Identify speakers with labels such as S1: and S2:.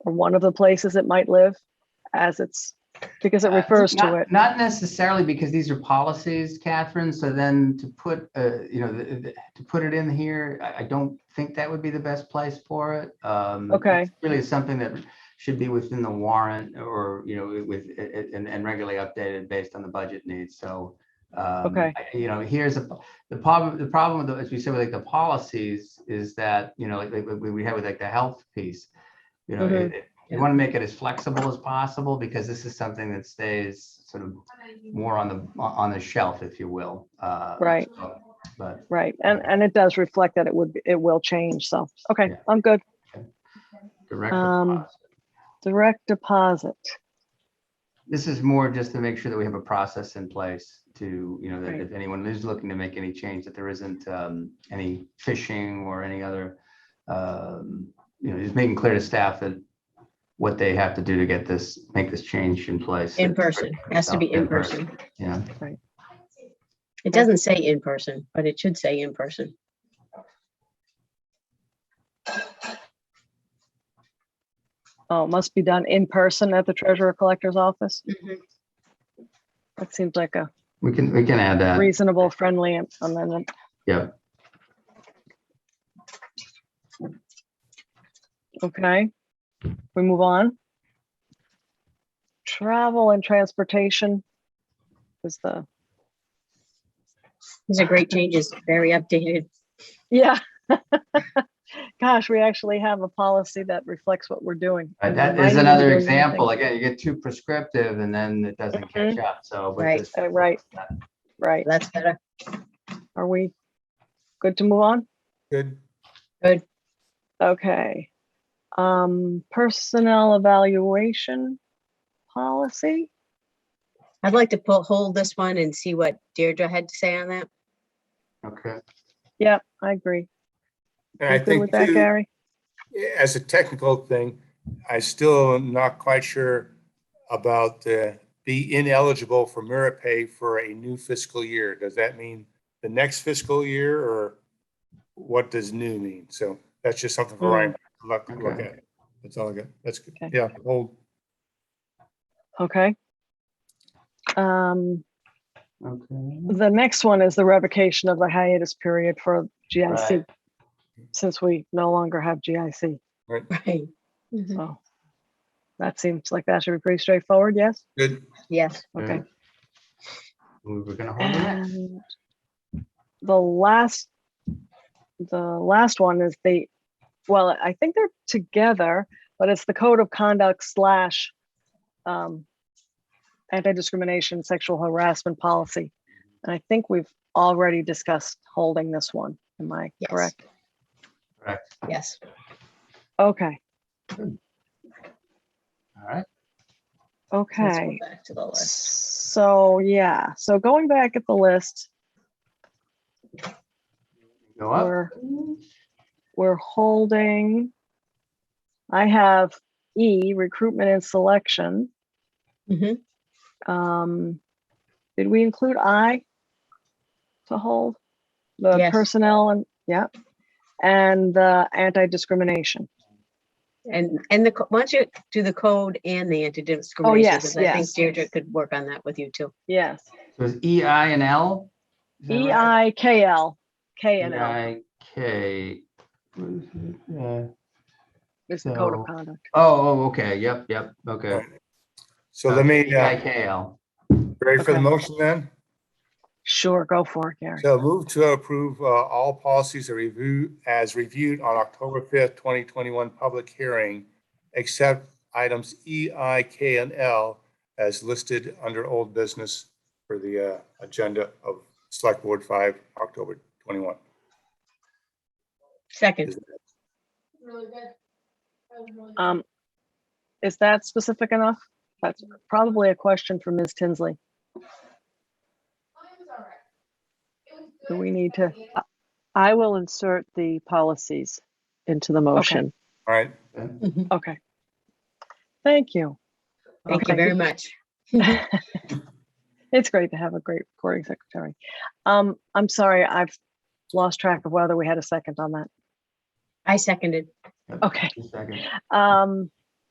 S1: or one of the places it might live as it's, because it
S2: Uh,
S1: refers to
S2: not-
S1: it.
S2: Not necessarily because these are policies, Catherine, so then to put, uh, you know, th- th- to put it in here, I, I don't think that would be the best place for it. Um,
S1: Okay.
S2: it's Really something that should be within the warrant or, you know, with, and, and regularly updated based on the budget needs, so. um,
S1: Okay.
S2: I- You know, here's a, the problem, the problem, with the- as we said, with like the policies is that, you know, like, like we, we had with like the health piece. You know,
S1: Mhm.
S2: it- it- you want to make it as flexible as possible because this is something that stays sort of more on the, on the shelf, if you will. uh,
S1: Right.
S2: so, But,
S1: Right. And, and it does reflect that it would, it will change. So, okay,
S2: Yeah.
S1: I'm good.
S2: direct
S1: Um,
S2: deposit.
S1: Direct deposit.
S2: this is more just to make sure that we have a process in place to, you know, that
S1: Right.
S2: if anyone is looking to make any change, that there isn't um, any phishing or any other, um, you know, just making clear to staff that what they have to do to get this, make this change in place.
S3: In person, has to be in person.
S2: Yeah,
S3: It doesn't say in person, but it should say in person.
S1: Oh, it must be done in person at the treasurer collector's office. That seems like a
S2: we can, we can add that.
S1: reasonable, friendly am- amendment.
S2: Yeah.
S1: Okay, we move on. Travel and transportation is the,
S3: These are great changes, very updated.
S1: yeah. Gosh, we actually have a policy that reflects what we're doing.
S2: Uh,
S1: and
S2: That
S1: reminding
S2: is
S1: you
S2: another
S1: to do
S2: example. Again, you get too prescriptive and then it doesn't catch up. So. with
S3: Mm-hmm. Right.
S2: this-
S1: Uh, right. something. Right,
S3: That's better.
S1: are we good to move on?
S4: Good.
S1: Okay. Um, personnel evaluation policy?
S3: I'd like to pull, hold this one and see what Deirdre had to say on that.
S2: Okay.
S1: Yeah, I agree.
S4: And
S1: You
S4: I
S1: Good
S4: think
S1: with that,
S4: too,
S1: Gary?
S4: as a technical thing, I still am not quite sure about uh, be ineligible for merit pay for a new fiscal year. Does that mean the next fiscal year or what does new mean? So that's just something for Ryan to look, look
S2: Okay.
S4: at. That's all I got. That's good.
S1: Mm. Okay.
S4: Yeah, hold.
S1: Okay. Um,
S2: Okay.
S1: the next one is the revocation of the hiatus period for GIC,
S2: Right.
S1: since we no longer have GIC.
S3: Right. Mhm.
S1: So that seems like that should be pretty straightforward, yes?
S4: Good.
S3: Yes,
S1: Okay.
S2: Yeah. We were gonna hold the next.
S1: And the last, the last one is the, well, I think they're together, but it's the code of conduct slash um, anti-discrimination, sexual harassment policy. And I think we've already discussed holding this one. Am I
S3: Yes.
S1: correct?
S3: yes.
S1: Okay,
S2: All right.
S3: Let's go
S1: okay.
S3: Back to the list.
S1: So, yeah, so going back at the list,
S2: Go up.
S1: we're we're holding. I have E, recruitment and selection.
S3: Mhm.
S1: Um, did we include I to hold? The
S3: Yes.
S1: personnel and, yeah, and the anti-discrimination.
S3: And, and the, co- why don't you do the code and the anti-discrimination?
S1: Oh, yes,
S3: because I think
S1: yes.
S3: Deirdre could work on that with you too.
S1: Yes,
S2: So it's E, I, and L? Is that
S1: E,
S2: right?
S1: I, K, L, K and
S2: E,
S1: L
S2: I, K. What is it? Yeah.
S1: is the code of
S2: so-
S1: conduct.
S2: Oh, oh, okay, yep, yep, okay.
S4: Alright. So let me,
S2: E, I,
S4: uh,
S2: K, L.
S4: ready for the
S1: Okay.
S4: motion then?
S1: Sure, go for it, Gary.
S4: So move to approve uh, all policies are review as reviewed on October fifth, twenty twenty-one public hearing, except items E, I, K, and L as listed under old business for the uh, agenda of Select Board five, October twenty-one.
S3: Second,
S1: Um, is that specific enough? That's probably a question for Ms. Tinsley. Do we need to,
S5: I will insert the policies into the motion.
S4: All right,
S3: Mhm.
S1: okay. Thank you.
S3: thank you
S1: Okay.
S3: very much.
S1: It's great to have a great recording secretary. Um, I'm sorry, I've lost track of whether we had a second on that.
S3: I seconded.
S1: Okay,
S2: Just a second.
S1: um,